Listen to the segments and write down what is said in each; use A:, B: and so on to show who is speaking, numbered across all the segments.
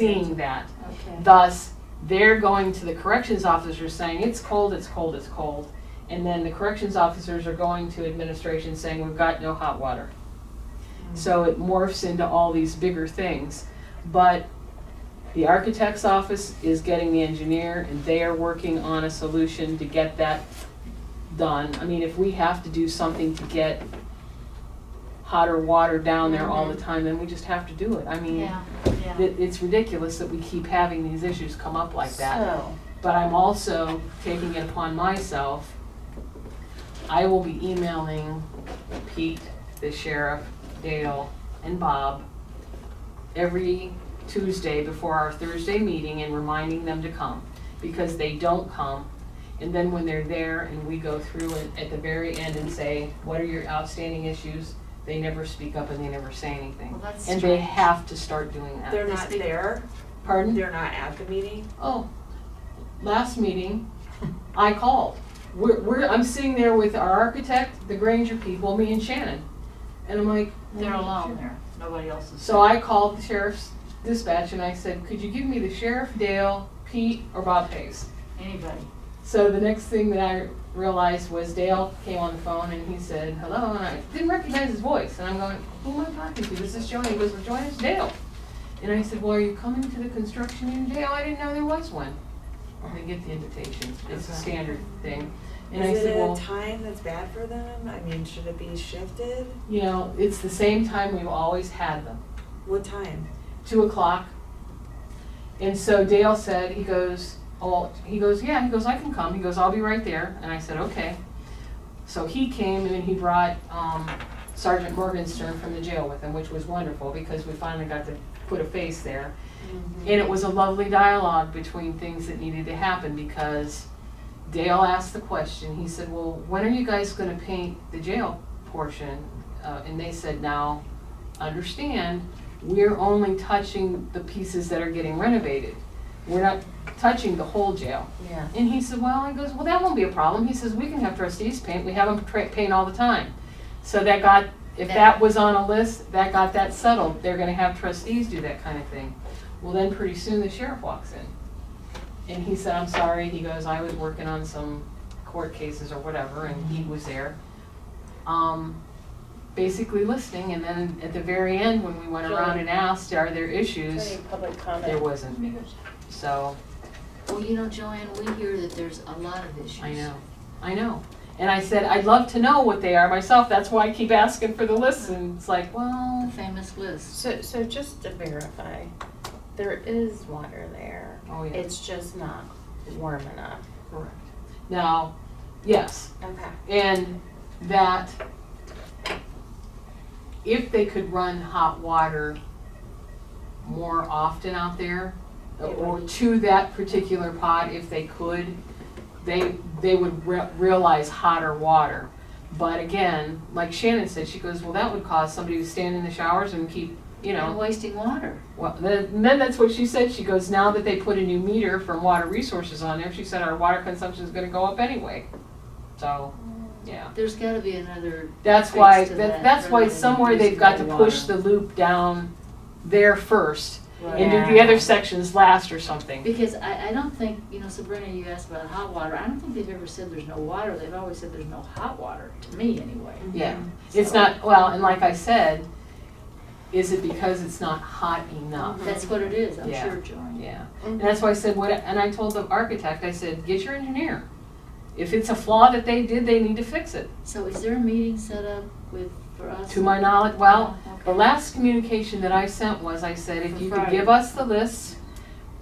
A: seeing that.
B: Okay.
A: Thus, they're going to the corrections officers saying, it's cold, it's cold, it's cold. And then the corrections officers are going to administration saying, we've got no hot water. So it morphs into all these bigger things. But the architect's office is getting the engineer and they are working on a solution to get that done. I mean, if we have to do something to get hotter water down there all the time, then we just have to do it. I mean,
B: Yeah, yeah.
A: it, it's ridiculous that we keep having these issues come up like that.
B: So,
A: But I'm also taking it upon myself. I will be emailing Pete, the sheriff, Dale, and Bob every Tuesday before our Thursday meeting and reminding them to come. Because they don't come, and then when they're there and we go through it at the very end and say, what are your outstanding issues? They never speak up and they never say anything.
B: well, that's
A: And they
B: strange.
A: have to start doing that.
C: They're not there,
A: Pardon?
C: they're not at the meeting.
A: Oh, last meeting, I called. We're, we're, I'm sitting there with our architect, the Granger people, me and Shannon. And I'm like.
B: They're alone there. Nobody else is.
A: So I called the sheriff's dispatch and I said, could you give me the sheriff, Dale, Pete, or Bob Pace?
B: Anybody.
A: So the next thing that I realized was Dale came on the phone and he said, hello, and I didn't recognize his voice. And I'm going, who am I talking to? This is Joanne. He goes, well, Joanne's Dale. And I said, well, are you coming to the construction union day? Oh, I didn't know there was one. And they get the invitation. It's a
C: Okay.
A: standard thing. And I
C: Is it
A: said,
C: at a
A: well,
C: time that's bad for them? I mean, should it be shifted?
A: you know, it's the same time we've always had them.
C: What time?
A: two o'clock. And so Dale said, he goes, oh, he goes, yeah, he goes, I can come. He goes, I'll be right there. And I said, okay. So he came and then he brought um, Sergeant Morgenstern from the jail with him, which was wonderful because we finally got to put a face there. And it was a lovely dialogue between things that needed to happen because Dale asked the question. He said, well, when are you guys going to paint the jail portion? Uh, and they said, now, understand, we're only touching the pieces that are getting renovated. We're not touching the whole jail.
B: Yeah.
A: And he said, well, he goes, well, that won't be a problem. He says, we can have trustees paint. We have them tra- paint all the time. So that got, if that was on a list, that got that settled. They're gonna have trustees do that kind of thing. Well, then pretty soon the sheriff walks in. And he said, I'm sorry. He goes, I was working on some court cases or whatever, and he was there. Um, basically listening, and then at the very end, when we went around and asked, are there issues?
C: public
A: There wasn't. So.
B: Well, you know, Joanne, we hear that there's a lot of issues.
A: I know, I know. And I said, I'd love to know what they are myself, that's why I keep asking for the list, and it's like,
B: The
A: well,
B: famous list.
D: So, so just to verify, there is water there.
A: oh yeah,
D: It's just not warm enough.
A: correct. Now, yes,
D: Okay.
A: and that if they could run hot water more often out there, or to that particular pod if they could, they, they would re- realize hotter water. But again, like Shannon said, she goes, well, that would cause somebody to stand in the showers and keep, you know,
B: They're wasting water.
A: Well, the- and then that's what she said. She goes, now that they put a new meter from Water Resources on there, she said our water consumption is going to go up anyway. So, yeah,
B: There's gotta be another,
A: that's why
B: Thanks to
A: that,
B: that,
A: that's why
B: rather than
A: somewhere they've got to
B: using the
A: push the
B: water.
A: loop down there first and
B: right?
A: do the
D: Yeah.
A: other sections last or something.
B: Because I, I don't think, you know, Sabrina, you asked about hot water. I don't think they've ever said there's no water. They've always said there's no hot water, to me anyway.
A: Yeah, it's not well, and like I said, is it because it's not hot enough?
B: That's what it is, I'm
A: Mm-hmm. Yeah.
B: sure, Joanne.
A: Yeah, and that's why I said what, and I told the architect, I said, get your engineer. If it's a flaw that they did, they need to fix it.
B: So is there a meeting set up with, for us?
A: To my knowledge, well,
B: Okay.
A: the last communication that I sent was, I said, if
B: For
A: you could
B: Friday.
A: give us the lists,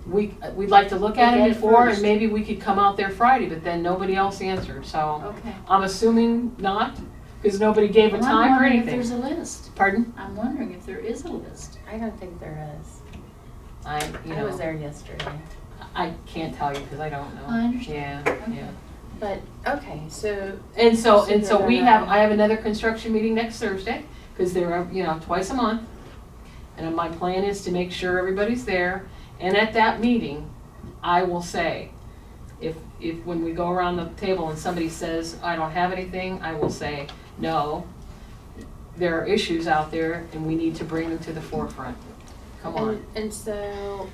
A: we, we'd like to look at
B: Look at
A: it
B: it
A: before, and
B: first.
A: maybe we could come out there Friday, but then nobody else answered, so.
B: Okay.
A: I'm assuming not, because nobody gave a
B: Well, I'm
A: time or
B: wondering If
A: anything.
B: there's a list.
A: Pardon?
B: I'm wondering if there is a list.
D: I don't think there is.
A: I, you
D: I was
A: know,
D: there yesterday.
A: I can't tell you, because I don't know.
B: I understand.
A: Yeah, yeah.
D: But, okay, so,
A: And so,
D: So
A: and so
D: they're
A: we
D: not-
A: have, I have another construction meeting next Thursday, because they're, uh, you know, twice a month. And my plan is to make sure everybody's there, and at that meeting, I will say, if, if, when we go around the table and somebody says, I don't have anything, I will say, no, there are issues out there, and we need to bring them to the forefront. Come on.
D: and, and so